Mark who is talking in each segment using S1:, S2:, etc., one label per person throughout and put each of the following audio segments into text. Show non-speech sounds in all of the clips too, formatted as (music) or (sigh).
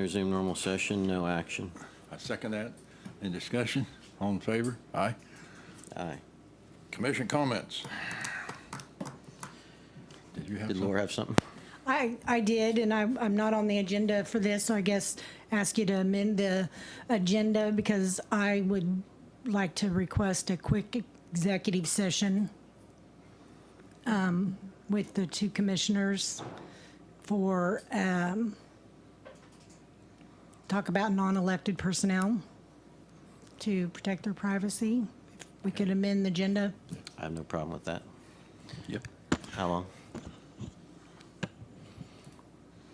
S1: Resume normal session, no action.
S2: I second that. Any discussion? All in favor? Aye.
S1: Aye.
S2: Commission comments? Did you have
S1: Did
S2: something?
S1: Laura have something?
S3: I, I did, and I'm, I'm not on the agenda for this, so I guess ask you to amend the agenda because I would like to request a quick executive session um, with the two commissioners for, um, talk about non-elected personnel to protect their privacy. If We could amend the agenda.
S1: I have no problem with that.
S2: Yep.
S1: How long?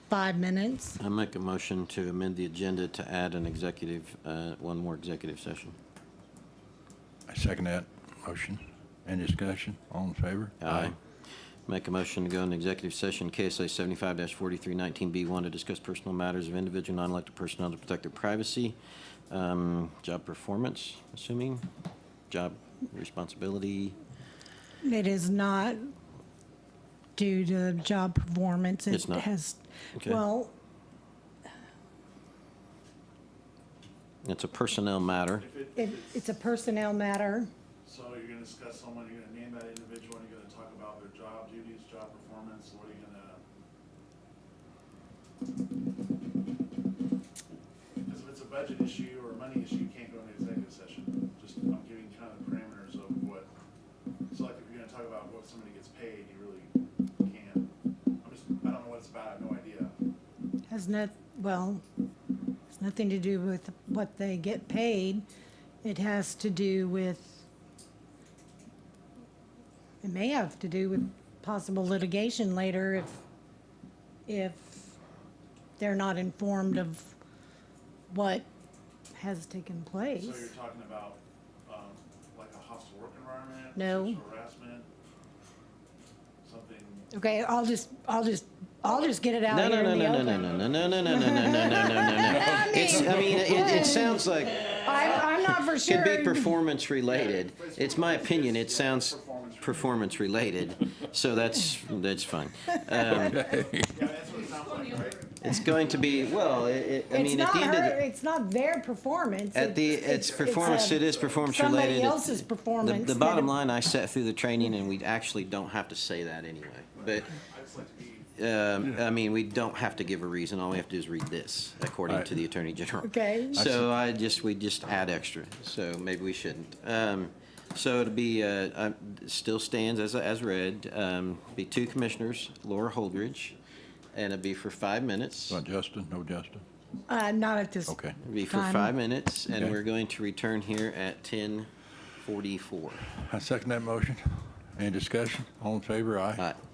S3: Five minutes.
S1: I make a motion to amend the agenda to add an executive, uh, one more executive session.
S2: I second that motion. Any discussion? All in favor?
S1: Make a motion to go into executive session, KSA 75-4319B1, to discuss personal matters of individual non-elected personnel to protect their privacy, um, job performance, assuming, job responsibility.
S3: It is not due to job performance. It
S1: It's not?
S3: has,
S1: Okay.
S3: well,
S1: It's a personnel matter.
S4: If it,
S3: it, it's a personnel matter.
S4: so you're gonna discuss someone, you're gonna name that individual, and you're gonna talk about their job duties, job performance, what are you gonna? Because if it's a budget issue or a money issue, you can't go into executive session, just, I'm giving you kind of the parameters of what, so like if you're gonna talk about what somebody gets paid, you really can't. I'm just, I don't know what it's about, I have no idea.
S3: Has not, well, it's nothing to do with what they get paid. It has to do with, it may have to do with possible litigation later if, if they're not informed of what has taken place.
S4: So you're talking about, um, like a hostile work environment?
S3: No.
S4: Sexual harassment? Something?
S3: Okay, I'll just, I'll just, I'll just get it out
S1: No, no,
S3: here
S1: no,
S3: in the
S1: no, no,
S3: open.
S1: no, no, no, no, no, no, no, no, no, no, no, no.
S3: (laughs) I
S1: It's, I
S3: mean,
S1: mean, it, it sounds like
S3: I'm, I'm not for sure.
S1: could be performance related. It's my opinion. It sounds performance related, so that's that's fine. Um,
S4: Yeah, that's what it sounds like, right?
S1: it's going to be well. It, it, I
S3: It's
S1: mean, at
S3: not
S1: the end of
S3: her,
S1: the,
S3: it's not their performance.
S1: at the
S3: It's-
S1: it's performance.
S3: a-
S1: it is performance
S3: somebody
S1: related.
S3: else's
S1: The-
S3: performance
S1: The,
S3: that-
S1: bottom line, I sat through the training, and we actually don't have to say that anyway. But
S4: I just like to be,
S1: um, I mean, we don't have to give a reason. All we have to do is read this, according
S2: Right.
S1: to the Attorney General.
S3: Okay. I
S1: So I just, we just add extra, so maybe we shouldn't. Um, So it'd be, uh, uh, still stands as, as read, um, be two commissioners, Laura Holdridge, and it'd be for five minutes.
S2: About Justin? No Justin?
S3: Uh, not at this.
S2: Okay.
S1: It'd be for
S3: Time.
S1: five minutes, and
S2: Okay.
S1: we're going to return here at 10:44.
S2: I second that motion. Any discussion? All in favor? Aye.
S1: All right.